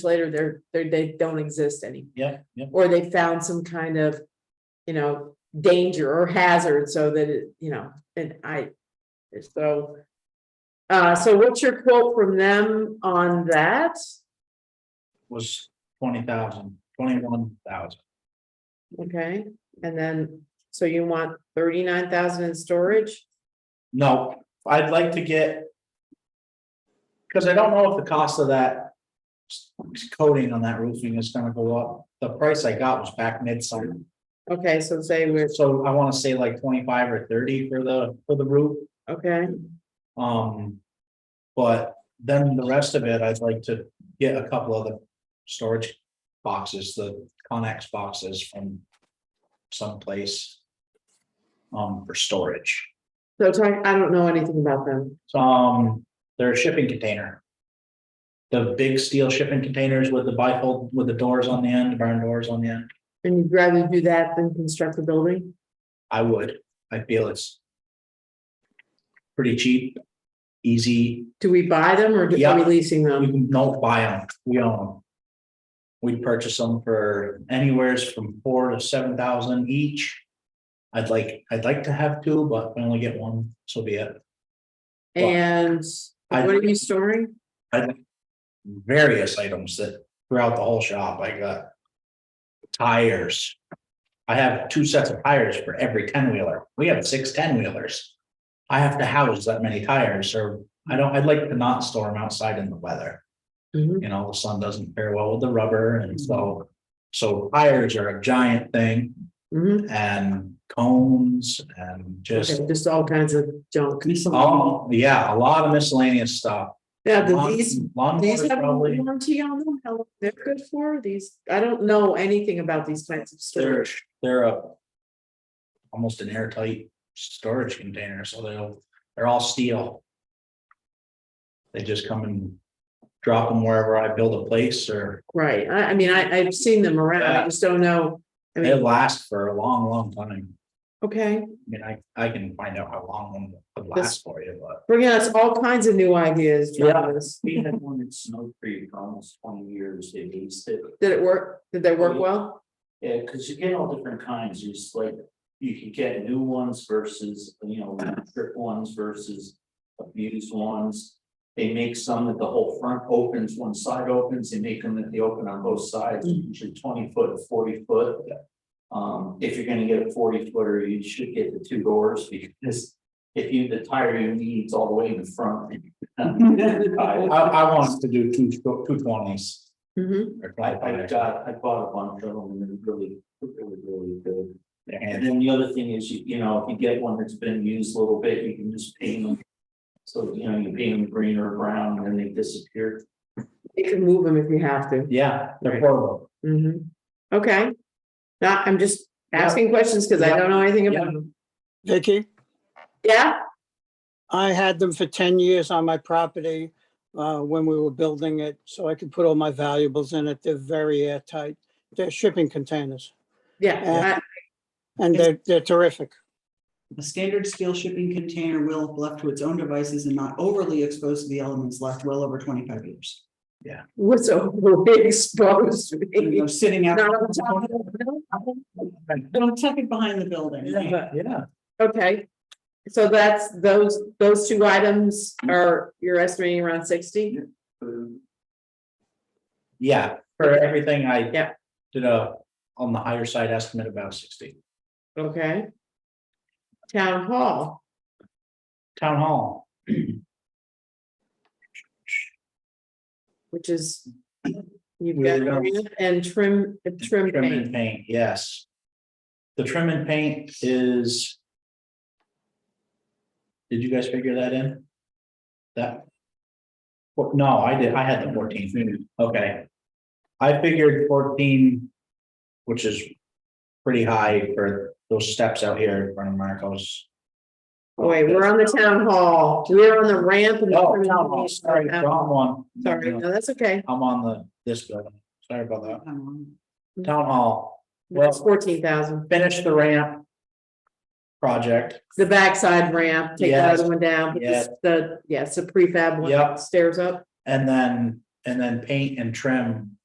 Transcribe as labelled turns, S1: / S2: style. S1: later, they're, they're, they don't exist anymore.
S2: Yeah, yeah,
S1: Or they found some kind of, you know, danger or hazard so that it, you know, and I, so. Uh, so what's your quote from them on that?
S2: was twenty thousand, twenty-one thousand.
S1: Okay, and then, so you want thirty-nine thousand in storage?
S2: No, I'd like to get. Cause I don't know if the cost of that. s- Coating on that roofing is gonna go up. The price I got was back midsummer.
S1: Okay, so say we're,
S2: So I wanna say like twenty-five or thirty for the, for the roof,
S1: okay,
S2: um. But then the rest of it, I'd like to get a couple of the storage boxes, the Conex boxes from. Someplace. Um, for storage.
S1: so talk, I don't know anything about them.
S2: Um, they're a shipping container. The big steel shipping containers with the bifold, with the doors on the end, barn doors on the end.
S1: And you'd rather do that than construct a building?
S2: I would, I feel it's. Pretty cheap, easy,
S1: Do we buy them or do- are we
S2: Yeah.
S1: leasing
S2: we
S1: them?
S2: can don't buy them, we own them. We purchase them for anywheres from four to seven thousand each. I'd like, I'd like to have two, but I only get one, so be it.
S1: And
S2: I-
S1: what are you storing?
S2: various items that throughout the whole shop, I got. Tires. I have two sets of tires for every ten wheeler. We have six ten wheelers. I have to house that many tires or I don't, I'd like to not store them outside in the weather.
S1: Mhm.
S2: You know, the sun doesn't fare well with the rubber and
S1: Mm-hmm.
S2: so. So tires are a giant thing
S1: Mhm.
S2: and cones and just,
S1: Okay, Just all kinds of junk.
S2: oh, yeah, a lot of miscellaneous stuff.
S1: Yeah, the-
S2: Lawn-
S1: these,
S2: lawn
S1: these
S2: mowers
S1: have a
S2: probably.
S1: warranty on them, how long they're good for, these, I don't know anything about these kinds of
S2: They're,
S1: storage.
S2: they're a. Almost an airtight storage container, so they'll, they're all steel. They just come and drop them wherever I build a place or
S1: Right, I, I mean, I, I've seen them around, I
S2: Yeah.
S1: just don't know, I
S2: they
S1: mean,
S2: last for a long, long time.
S1: okay,
S2: I mean, I, I can find out how long one would
S1: This-
S2: last for you, but.
S1: bringing us all kinds of new ideas,
S2: Yeah.
S1: Travis.
S3: We had one in Snow Creek almost twenty years, they leased it.
S1: Did it work, did they work well?
S3: Yeah, because you get all different kinds, you just like, you can get new ones versus, you know, trip ones versus abused ones. They make some that the whole front opens, one side opens, they make them that they open on both sides,
S1: Mhm.
S3: usually twenty foot or forty foot. Um, if you're gonna get a forty footer, you should get the two doors because if you, the tire you need is all the way in the front.
S2: I, I want to do two, two twenties.
S1: Mhm.
S3: I, I got, I bought a bunch of them and they're really, really, really good. And
S2: And
S3: then the other thing is, you, you know, if you get one that's been used a little bit, you can just paint them. So, you know, you paint them green or brown and then they disappear.
S1: You can move them if you have to,
S2: yeah, they're
S1: Right.
S2: portable.
S1: Mhm. okay. Now, I'm just
S2: Yeah.
S1: asking questions, cause I
S2: Yeah.
S1: don't know anything about
S2: Yeah.
S1: them,
S4: Vicky,
S1: yeah,
S4: I had them for ten years on my property uh, when we were building it, so I could put all my valuables in it. They're very airtight. They're shipping containers
S1: yeah,
S4: Yeah. and they're, they're terrific.
S5: A standard steel shipping container will, if left to its own devices and not overly exposed to the elements, last well over twenty-five years.
S1: I was overexposed.
S5: You know, Sitting out,
S1: No, I'm talking- no,
S5: don't tuck it behind the building.
S1: but-
S2: Yeah.
S1: Okay, so that's those, those two items are, you're estimating around sixty?
S2: Yeah, for everything I.
S1: Yeah.
S2: Did a, on the higher side estimate about sixty.
S1: Okay. Town hall,
S2: Town hall,
S1: which is. You've
S2: We
S1: got
S2: were
S1: arena and trim, trim
S2: trim and
S1: paint,
S2: paint, yes. The trim and paint is. Did you guys figure that in? That? Well, no, I did, I had the fourteen, okay. I figured fourteen, which is pretty high for those steps out here in front of Marcos.
S1: oh wait, we're on the town hall, we're on the ramp. and the
S2: Oh,
S1: trim and
S2: town hall,
S1: paint. Uh,
S2: sorry, wrong one.
S1: Sorry, no, that's okay,
S2: I'm on the, this building, sorry about that,
S5: Um,
S2: town hall,
S1: that's fourteen thousand,
S2: finish the ramp. Project,
S1: the backside ramp, take the
S2: Yes.
S1: other one down, but this-
S2: Yes.
S1: the, yes, the prefab
S2: Yep.
S1: one stairs up,
S2: and then and then paint and trim